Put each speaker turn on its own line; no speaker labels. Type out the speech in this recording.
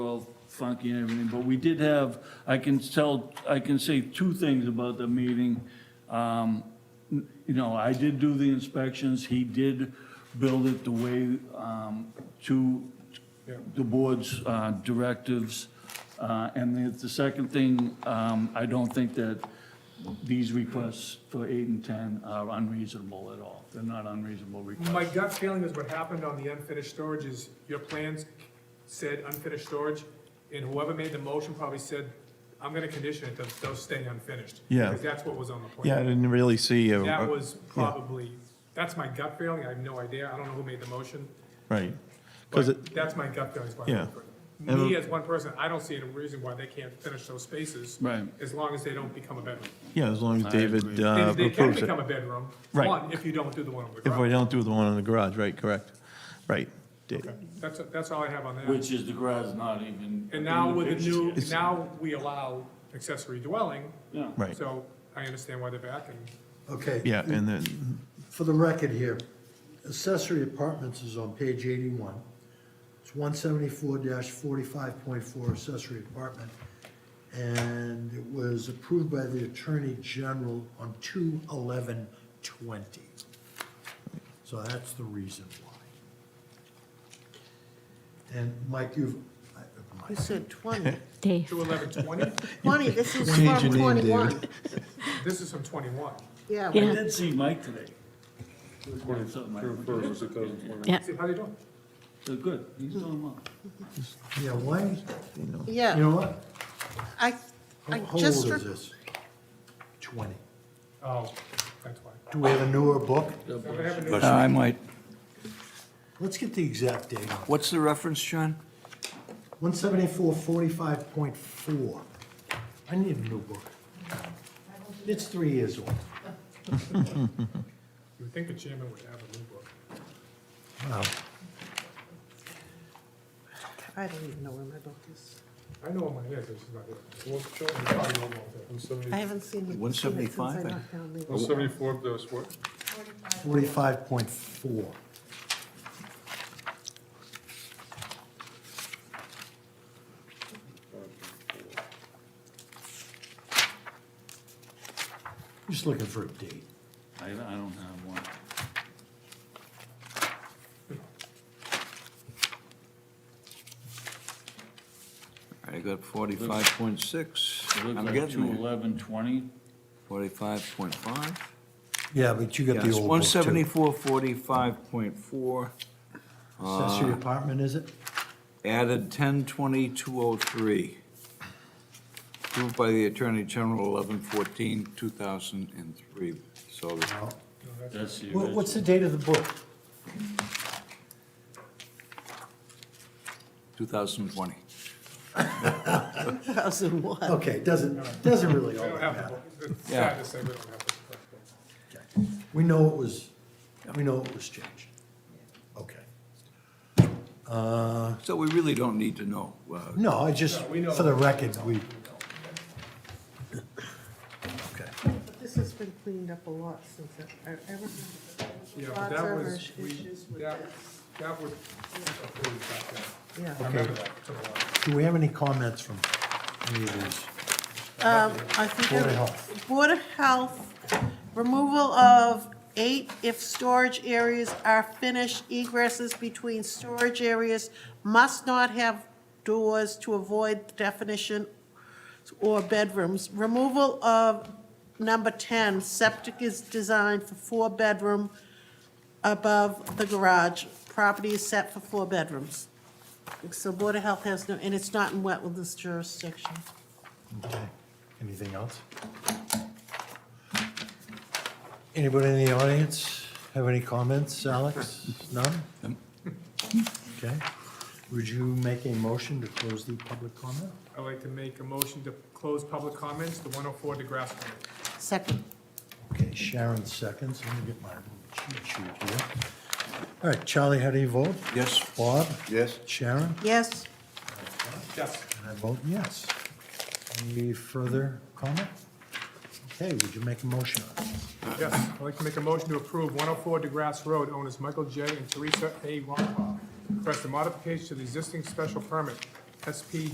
funky and everything, but we did have, I can tell, I can say two things about the meeting. Um, n- You know, I did do the inspections, he did build it the way um, to the board's uh, directives. Uh, And the- the second thing, um, I don't think that these requests for eight and 10 are unreasonable at all. They're not unreasonable requests.
My gut feeling is what happened on the unfinished storage is your plans said unfinished storage, and whoever made the motion probably said, I'm gonna condition it to, to stay unfinished.
Yeah.
Because that's what was on the plan.
Yeah, I didn't Uh, really see. a-
That was probably, that's my gut feeling, I have no idea, I don't know who made the motion,
Right. Because
but that's my gut feeling. is why I'm
Yeah.
for it.
And- uh,
Me as one person, I don't see any reason why they can't finish those spaces.
Right.
As long as they don't become a bedroom.
yeah, as long as
agree.
David
They-
uh,
They, they can
approves it.
become a bedroom,
Right.
one, if you don't do the one on the
If we
garage.
don't do the one in the garage, right, correct. Right. Da-
Okay, That's, that's all I have on that.
Which is the garage is not even.
And now
in
with the
pictures
new,
yet.
now we allow accessory dwelling,
Yeah.
Right,
so I understand why they're back and
Okay.
yeah, and then,
For the record here, accessory apartments is on page eighty-one. It's one seventy-four forty-five point four accessory apartment. And it was approved by the Attorney General on two eleven twenty. So that's the reason why. And Mike, you've, I-
You said 20.
Dave.
two eleven twenty,
20, this is
Change your
from
name,
21.
this is from twenty-one.
Yeah,
I
Yeah.
but
did see Mike today. Twenty-something, Mike.
See, how they doing?
So good, he's doing well.
yeah, why,
you know,
you
yeah,
know what?
I,
How
I
how old is
just, re-
this? Twenty.
Oh, that's why.
Do we have a newer book?
So they have a new-
Uh, I might.
Let's get the exact date on it.
What's the reference, John?
One seventy-four, forty-five point four. I need a new book. It's three years old.
You would think the chairman would have a new book.
I don't even know where my book is.
I know what mine is, it's just not here. Well, show them, probably don't want that.
I haven't seen it seen it since I
175, I-
knocked down
Oh,
the.
Forty-five point four. Just looking for a date.
I, I don't have one.
I got forty-five point six.
It looks
I'm
like two
getting
eleven twenty.
Forty-five point five?
Yeah, but you got the
Yes,
old book
one
too.
seventy-four, forty-five point four,
Accessory apartment, is it?
added ten twenty, two oh three. Approved by the Attorney General, eleven fourteen, two thousand and three. So
No.
That's the
What- What's
original.
the date of the book?
two thousand and twenty.
2001.
Okay, doesn't, doesn't really
They
all
don't have
that
the
matter.
book, it's sad
Yeah.
to say we don't have the book.
We know it was, we know it was changed. Okay. Uh,
So we really don't need to know. uh,
No, I just,
No, we know.
for the record, we. Okay.
But This has been cleaned up a lot since I, I remember.
Yeah, but
Lots
that
of
was- we-
issues with
that-
this.
That was approved back
Yeah.
then. I remember that, it took a while.
Do we have any comments from any of these?
Um, I think.
Board of
I-
Health.
Board of Health, removal of eight if storage areas are finished, egresses between storage areas must not have doors to avoid the definition or bedrooms. Removal of number ten, septic is designed for four bedroom above the garage. Property is set for four bedrooms. So Board of Health has no, and it's not in wetlands jurisdiction.
Okay. Anything else? Anybody in the audience have any comments? Alex? None? Okay. Would you make a motion to close the public comment?
I'd like to make a motion to close public comments, the one oh four DeGrasse Road.
Second.
Okay, Sharon seconds. Let me get my little cheat sheet here. All right, Charlie, how do you vote?
Yes?
Bob?
Yes.
Sharon?
Yes.
Yes.
And I vote yes. Any further comment? Okay, would you make a motion on it?
Yes, I'd like to make a motion to approve 104 DeGrasse Road, owners Michael J. and Teresa A. Ronkoff. Request a modification to the existing special permit, SP